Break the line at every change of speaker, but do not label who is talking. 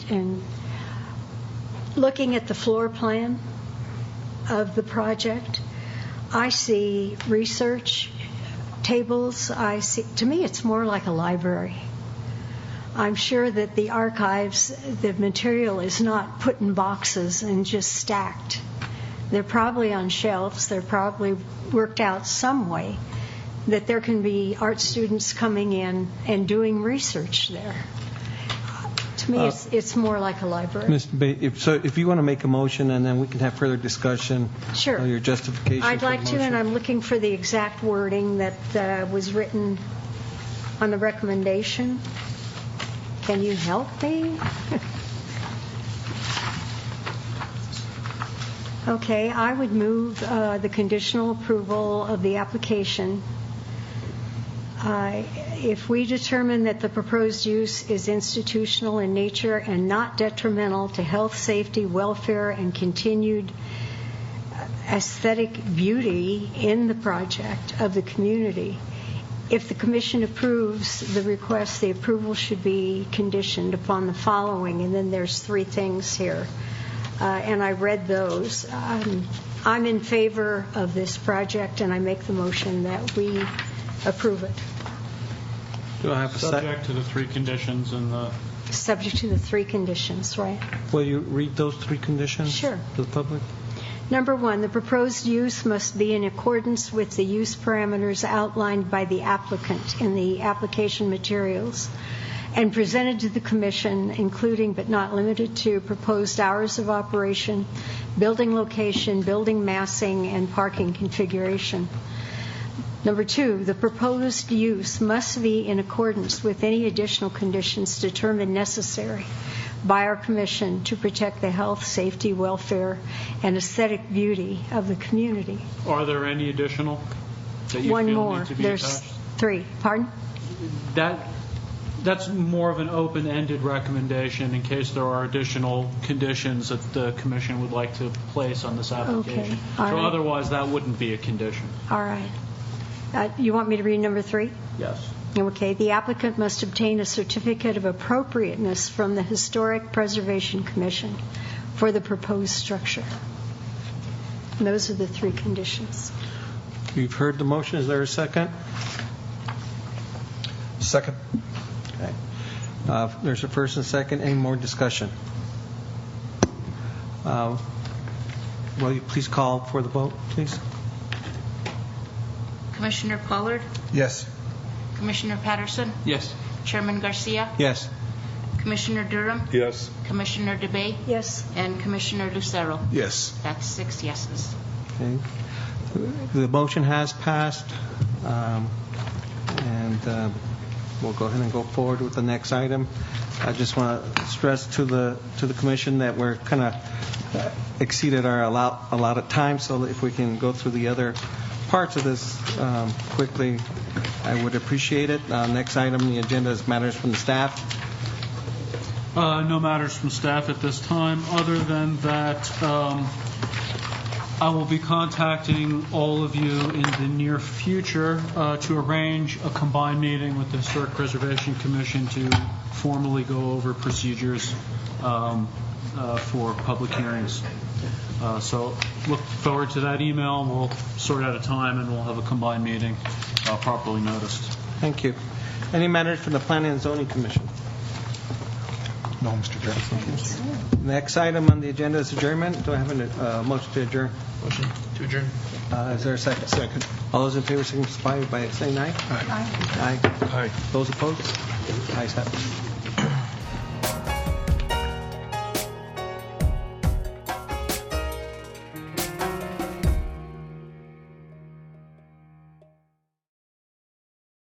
and looking at the floor plan of the project, I see research tables, I see, to me, it's more like a library. I'm sure that the archives, the material is not put in boxes and just stacked. They're probably on shelves, they're probably worked out some way that there can be art students coming in and doing research there. To me, it's, it's more like a library.
Ms. Ba- if- So if you want to make a motion, and then we can have further discussion.
Sure.
of Your justification
I'd
for the
like to, and
motion.
I'm looking for the exact wording that uh, was written on the recommendation. Can you help me? Okay, I would move uh, the conditional approval of the application. Uh, If we determine that the proposed use is institutional in nature and not detrimental to health, safety, welfare, and continued aesthetic beauty in the project of the community. If the commission approves the request, the approval should be conditioned upon the following, and then there's three things here. Uh, And I read those. Um, I'm in favor of this project, and I make the motion that we approve it,
Do I have a second?
Subject to the three conditions and the,
subject to the three conditions, right?
Will you read those three conditions?
Sure.
To the public?
Number one, the proposed use must be in accordance with the use parameters outlined by the applicant in the application materials and presented to the commission, including but not limited to proposed hours of operation, building location, building massing, and parking configuration. Number two, the proposed use must be in accordance with any additional conditions determined necessary by our commission to protect the health, safety, welfare, and aesthetic beauty of the community.
are there any additional that you
One
feel
more,
need to be
there's
attached?
three, pardon?
That, that's more of an open-ended recommendation in case there are additional conditions that the commission would like to place on this application. So
all right.
otherwise, that wouldn't be a condition.
All right. Uh, You want me to read number three?
Yes.
Okay, the applicant must obtain a certificate of appropriateness from the Historic Preservation Commission for the proposed structure. And those are the three conditions.
You've heard the motion, is there a second?
Second.
Okay. Uh, There's a first and second, any more discussion? Uh, Will you please call for the vote, please?
Commissioner Pollard,
Yes.
Commissioner Patterson,
Yes.
Chairman Garcia,
Yes.
Commissioner Durham,
Yes.
Commissioner DeBay,
Yes,
and Commissioner Lucero.
Yes.
That's six yeses.
Okay. The motion has passed, um, and uh, we'll go ahead and go forward with the next item. I just want to stress to the, to the commission that we're kind of exceeded our allow- allotted time, so if we can go through the other parts of this um, quickly, I would appreciate it. Uh, Next item on the agenda is matters from the staff.
Uh, No matters from staff at this time, other than that um, I will be contacting all of you in the near future uh, to arrange a combined meeting with the Historic Preservation Commission to formally go over procedures um, uh, for public hearings. Uh, So look forward to that email, we'll sort out a time, and we'll have a combined meeting uh, properly noticed.
Thank you. Any matters from the Planning and Zoning Commission?
No, Mr. Chairman.
Next item on the agenda is adjournment. Do I have a uh, motion to adjourn?
Motion to adjourn.
Uh, Is there a second?
Second.
All those in favor signify by saying aye. Aye.
Aye.
Those opposed? Ayes have it.